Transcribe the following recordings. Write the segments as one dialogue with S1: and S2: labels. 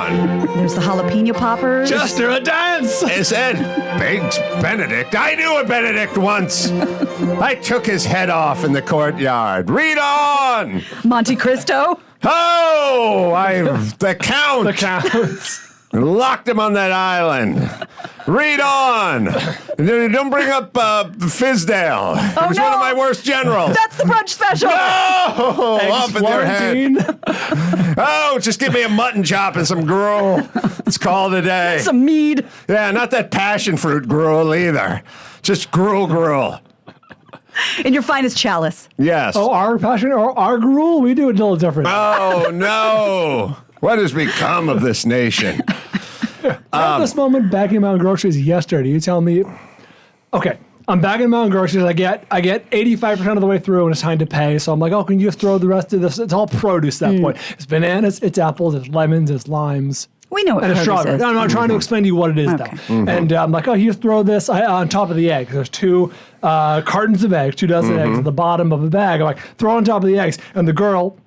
S1: There's the jalapeno poppers.
S2: Chester, a dance!
S3: Is it Biggs Benedict? I knew a Benedict once. I took his head off in the courtyard. Read on.
S1: Monte Cristo.
S3: Oh, I the count.
S2: The counts.
S3: Locked him on that island. Read on. Don't bring up uh, Fizdale. he was one
S1: no.
S3: of my worst generals.
S1: That's the brunch special.
S3: Oh, up in their head. Oh, just give me a mutton chop and some gruel. It's called a day.
S1: Some mead.
S3: Yeah, not that passion fruit gruel either. Just gruel gruel.
S1: In your finest chalice.
S3: Yes.
S4: Oh, our passion or our gruel? We do it a little different.
S3: Oh, no. What has become of this nation?
S4: At
S3: Um,
S4: this moment, bagging my own groceries yesterday, you tell me, okay, I'm bagging my own groceries. I get I get 85% of the way through and it's time to pay. So I'm like, oh, can you just throw the rest of this? It's all produce at that
S3: Hmm.
S4: point. It's bananas, it's apples, it's lemons, it's limes.
S1: We know what
S4: And a
S1: produce
S4: strawberry.
S1: is.
S4: No, I'm not trying to explain to you what it is, though.
S1: Mm-hmm. Okay.
S4: And uh, I'm like, oh, you just throw this uh, on top of the eggs. There's two uh, cartons of eggs, two dozen eggs at the bottom of a bag. I'm like, throw on top of the eggs. And the girl,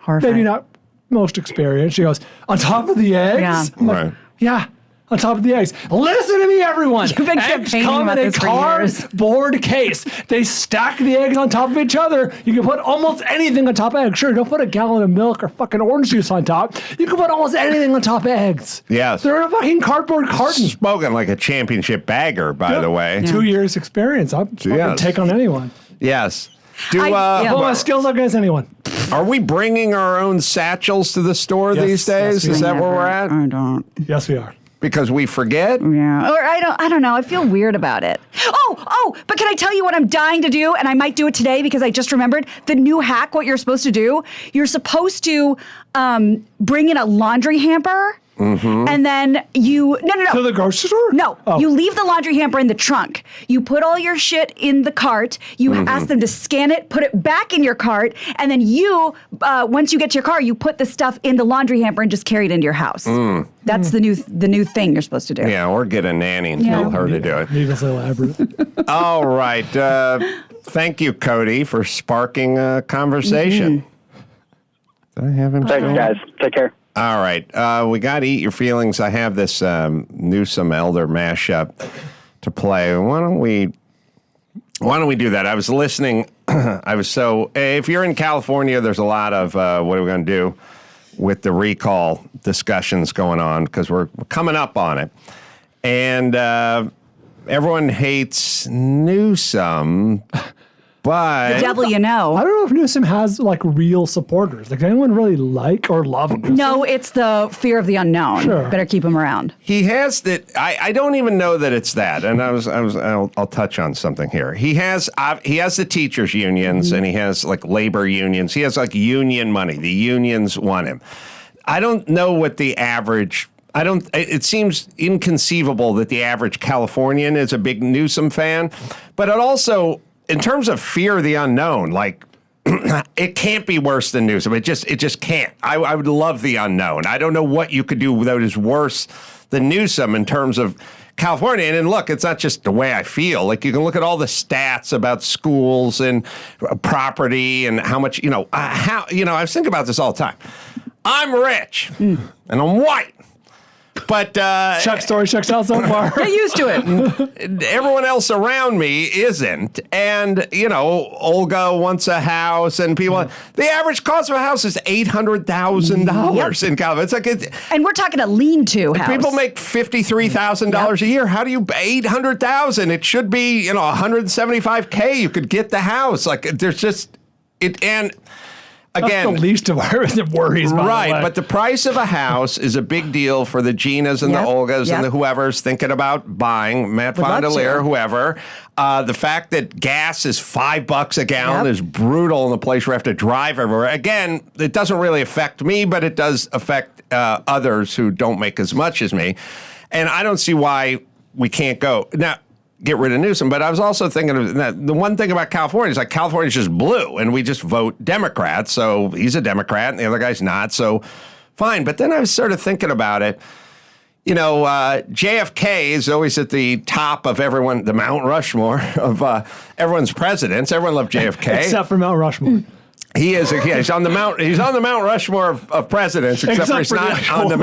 S1: Horrifying.
S4: maybe not most experienced, she goes, on top of the eggs?
S1: Yeah.
S4: I'm like,
S3: Right.
S4: yeah. On top of the eggs. Listen to me, everyone.
S1: You've been
S4: eggs
S1: campaigning
S4: come
S1: about
S4: in a
S1: this for years.
S4: cardboard case. They stack the eggs on top of each other. You can put almost anything on top of eggs. Sure, don't put a gallon of milk or fucking orange juice on top. You can put almost anything on top of eggs.
S3: Yes.
S4: They're in a fucking cardboard carton.
S3: Spoken like a championship bagger, by the way.
S4: Two years experience. I'm fucking
S3: Yes.
S4: take on anyone.
S3: Yes. Do
S1: I-
S3: uh,
S1: yeah.
S4: Put my skills up against anyone.
S3: are we bringing our own satchels to the store
S4: Yes,
S3: these days?
S4: yes, we
S3: Is that
S1: Never.
S3: where we're at?
S1: I don't.
S4: Yes, we are.
S3: Because we forget.
S1: Yeah. Or I don't I don't know. I feel weird about it. Oh, oh, but can I tell you what I'm dying to do and I might do it today because I just remembered the new hack what you're supposed to do. You're supposed to um, bring in a laundry hamper
S3: Mm-hmm.
S1: and then you No, no, no.
S4: To the grocery store?
S1: No,
S4: Oh.
S1: you leave the laundry hamper in the trunk. You put all your shit in the cart. You ask them to scan it, put it back in your cart, and then you, uh, once you get to your car, you put the stuff in the laundry hamper and just carry it into your house. That's the new the new thing you're supposed to do.
S3: Yeah, or get a nanny and
S1: Yeah.
S3: tell her to do it.
S4: Needlessly elaborate.
S3: All right. Uh, thank you, Cody, for sparking a conversation. Did I have him?
S5: Thanks,
S3: still?
S5: guys. Take care.
S3: All right. Uh, we got to eat your feelings. I have this um, Newsom Elder mashup to play. Why don't we? Why don't we do that? I was listening. I was so. eh, If you're in California, there's a lot of uh, what are we going to do with the recall discussions going on because we're coming up on it, and uh, everyone hates Newsom, but
S1: Devil, you
S4: I
S1: know.
S4: don't know if Newsom has like real supporters. Like, does anyone really like or love Newsom?
S1: No, it's the fear of the unknown.
S4: Sure.
S1: Better keep him around.
S3: He has that. I, I don't even know that it's that. And I was I was I'll, I'll touch on something here. He has uh, he has the teachers unions and he has like labor unions. He has like union money. The unions want him. I don't know what the average. I don't. It it seems inconceivable that the average Californian is a big Newsom fan, but it also in terms of fear of the unknown, like it can't be worse than Newsom. It just it just can't. I, I would love the unknown. I don't know what you could do that is worse than Newsom in terms of California. And, and look, it's not just the way I feel. Like you can look at all the stats about schools and uh, property and how much you know. Uh, how you know I think about this all the time. I'm rich and I'm white, but uh,
S4: Chuck's story checks out so far.
S1: Get used to it.
S3: everyone else around me isn't. And, you know, Olga wants a house and people,
S4: Mm.
S3: the average cost of a house is $800,000 in California. It's like, it,
S1: and we're talking a lean-to house.
S3: people make $53,000 a year. How do you, 800,000? It should be, you know, 175K. You could get the house. Like there's just, it, and
S4: That's
S3: again,
S4: the least of our that worries. by the
S3: Right,
S4: way.
S3: but the price of a house is a big deal for the Ginas and
S1: Yep,
S3: the Olgas and
S1: yep.
S3: the whoever's thinking about buying Matt
S1: Would love
S3: Fondelier,
S1: to.
S3: whoever. Uh, the fact that gas is five bucks a gallon
S1: Yep.
S3: is brutal in the place where I have to drive everywhere. Again, it doesn't really affect me, but it does affect uh, others who don't make as much as me, and I don't see why we can't go now. Get rid of Newsom, but I was also thinking of that the one thing about California is like California's just blue, and we just vote Democrat. So he's a Democrat, and the other guy's not. So fine. But then I was sort of thinking about it you know, uh, JFK is always at the top of everyone, the Mount Rushmore of uh, everyone's presidents. Everyone loved JFK.
S4: except for Mount Rushmore.
S3: he is. yeah, he's on the Mount. He's on the Mount Rushmore of, of presidents, except,
S4: Except
S3: for he's
S4: for
S3: not on the
S4: Rushmore.
S3: Mount.